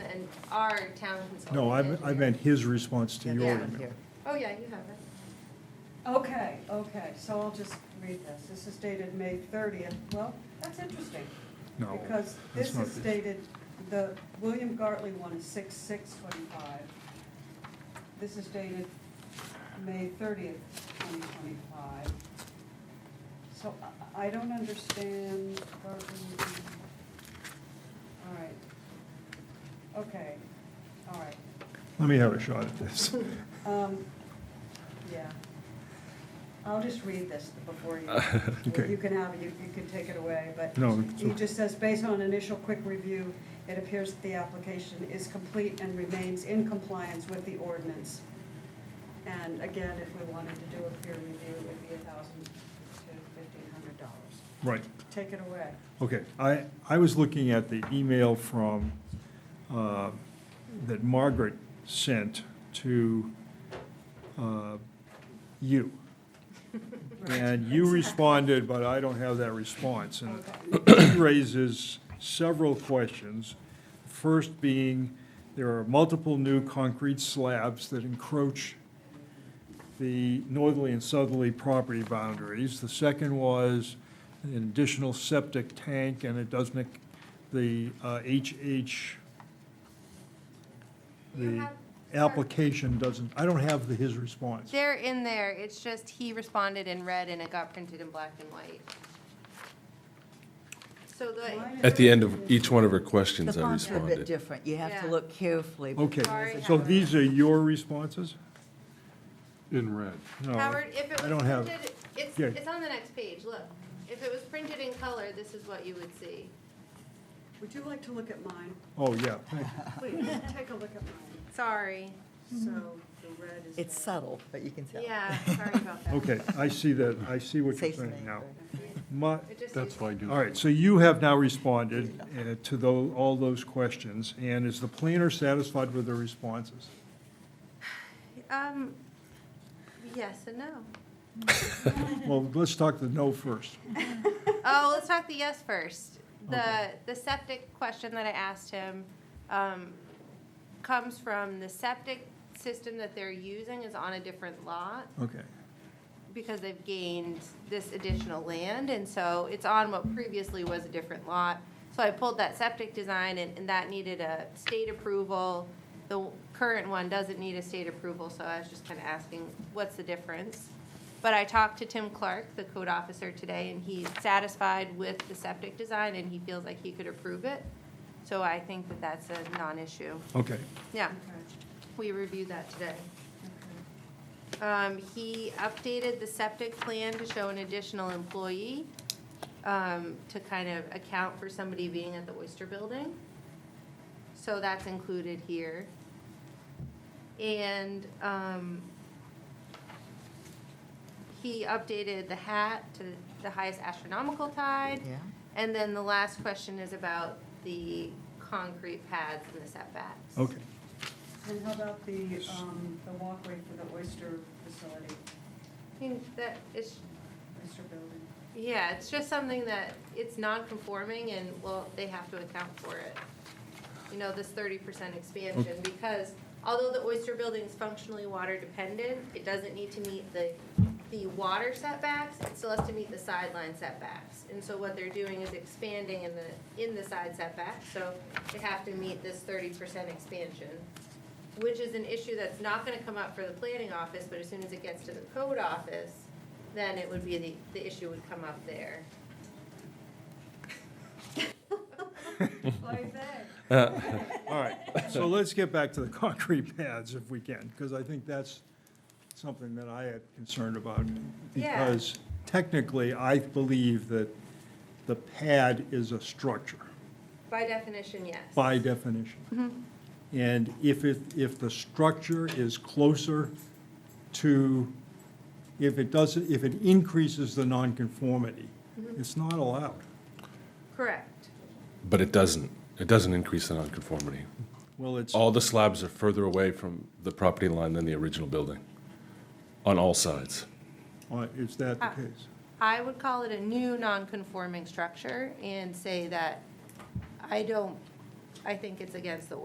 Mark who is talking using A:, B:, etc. A: our town consultant.
B: No, I, I
A: engineer.
B: meant his response to your
A: Yeah.
B: email.
A: Oh, yeah, you have it.
C: Okay, okay, so I'll just read this. This is dated May thirtieth. Well, that's interesting.
B: No.
C: Because
B: that's
C: this
B: not
C: is
B: it.
C: dated, the William Gartley one is six, six twenty-five. This is dated May thirtieth, twenty twenty-five. So I- I don't understand Gartley. All right. Okay, all right.
B: Let me have a shot at this.
C: Um, yeah. I'll just read this before you,
B: Okay.
C: you can have, it, you, you can take it away, but.
B: No, it's
C: He
B: okay.
C: just says, based on initial quick review, it appears that the application is complete and remains in compliance with the ordinance. And again, if we wanted to do a peer review, it would be a thousand to fifteen hundred dollars.
B: Right,
C: Take it away.
B: okay. I, I was looking at the email from, uh, that Margaret sent to uh, you. And you responded, but I don't have that response. And it raises several questions. First being, there are multiple new concrete slabs that encroach the northerly and southerly property boundaries. The second was an additional septic tank, and it doesn't, the uh, HH,
A: You
B: the
A: have-
B: application doesn't, I don't have the- his response.
A: They're in there, it's just he responded in red and it got printed in black and white. So the,
C: Mine is-
D: At the end of each one of her questions,
E: The
D: I
E: fonts are a bit
D: responded.
E: different. You have to
A: Yeah.
E: look carefully.
B: Okay,
A: Sorry,
B: so
A: Howard.
B: these are your responses?
F: In red.
B: No.
A: Howard, if it
B: I
A: was
B: don't have-
A: printed, it's,
B: Yeah.
A: it's on the next page, look. If it was printed in color, this is what you would see.
C: Would you like to look at mine?
B: Oh, yeah.
C: Please, take a look at mine.
A: Sorry,
C: So the red is.
E: It's
C: red.
E: subtle, but you can tell.
A: yeah, sorry about that.
B: Okay, I see that, I see what you're
E: Safe to
B: saying
E: make,
B: now.
E: but-
B: My,
A: It just
F: That's
A: seems-
F: why I do.
B: all right, so you have now responded uh, to tho, all those questions, and is the planner satisfied with the responses?
A: Um, yes and no.
B: Well, let's talk the no first.
A: Oh, let's talk the yes first. The,
B: Okay.
A: the septic question that I asked him, um, comes from the septic system that they're using is on a different lot
B: Okay,
A: because they've gained this additional land, and so it's on what previously was a different lot. So I pulled that septic design, and, and that needed a state approval. The current one doesn't need a state approval, so I was just kind of asking, what's the difference? But I talked to Tim Clark, the code officer, today, and he's satisfied with the septic design, and he feels like he could approve it. So I think that that's a non-issue.
B: okay.
A: Yeah,
C: Okay.
A: we reviewed that today. Um, he updated the septic plan to show an additional employee, um, to kind of account for somebody being at the Oyster Building. So that's included here. And, um, he updated the hat to the highest astronomical tide.
E: Yeah.
A: And then the last question is about the concrete pads and the setbacks.
B: Okay,
C: And how about the, um, the walkway for the oyster facility,
A: I think that is,
C: oyster building?
A: yeah, it's just something that, it's non-conforming and, well, they have to account for it. You know, this thirty percent expansion, because although the oyster building is functionally water dependent, it doesn't need to meet the, the water setbacks, it still has to meet the sideline setbacks. And so what they're doing is expanding in the, in the side setback, so they have to meet this thirty percent expansion. which is an issue that's not gonna come up for the planning office, but as soon as it gets to the code office, then it would be, the, the issue would come up there.
B: all right. So let's get back to the concrete pads if we can, because I think that's something that I had concerned about.
A: Yeah.
B: Because technically, I believe that the pad is a structure.
A: By definition, yes.
B: by definition. And if it, if the structure is closer to, if it doesn't, if it increases the nonconformity, it's not allowed.
A: Correct.
D: But it doesn't, it doesn't increase the nonconformity.
B: Well, it's,
D: All the slabs are further away from the property line than the original building, on all sides.
B: uh, is that the case?
A: I would call it a new non-conforming structure and say that I don't, I think it's against the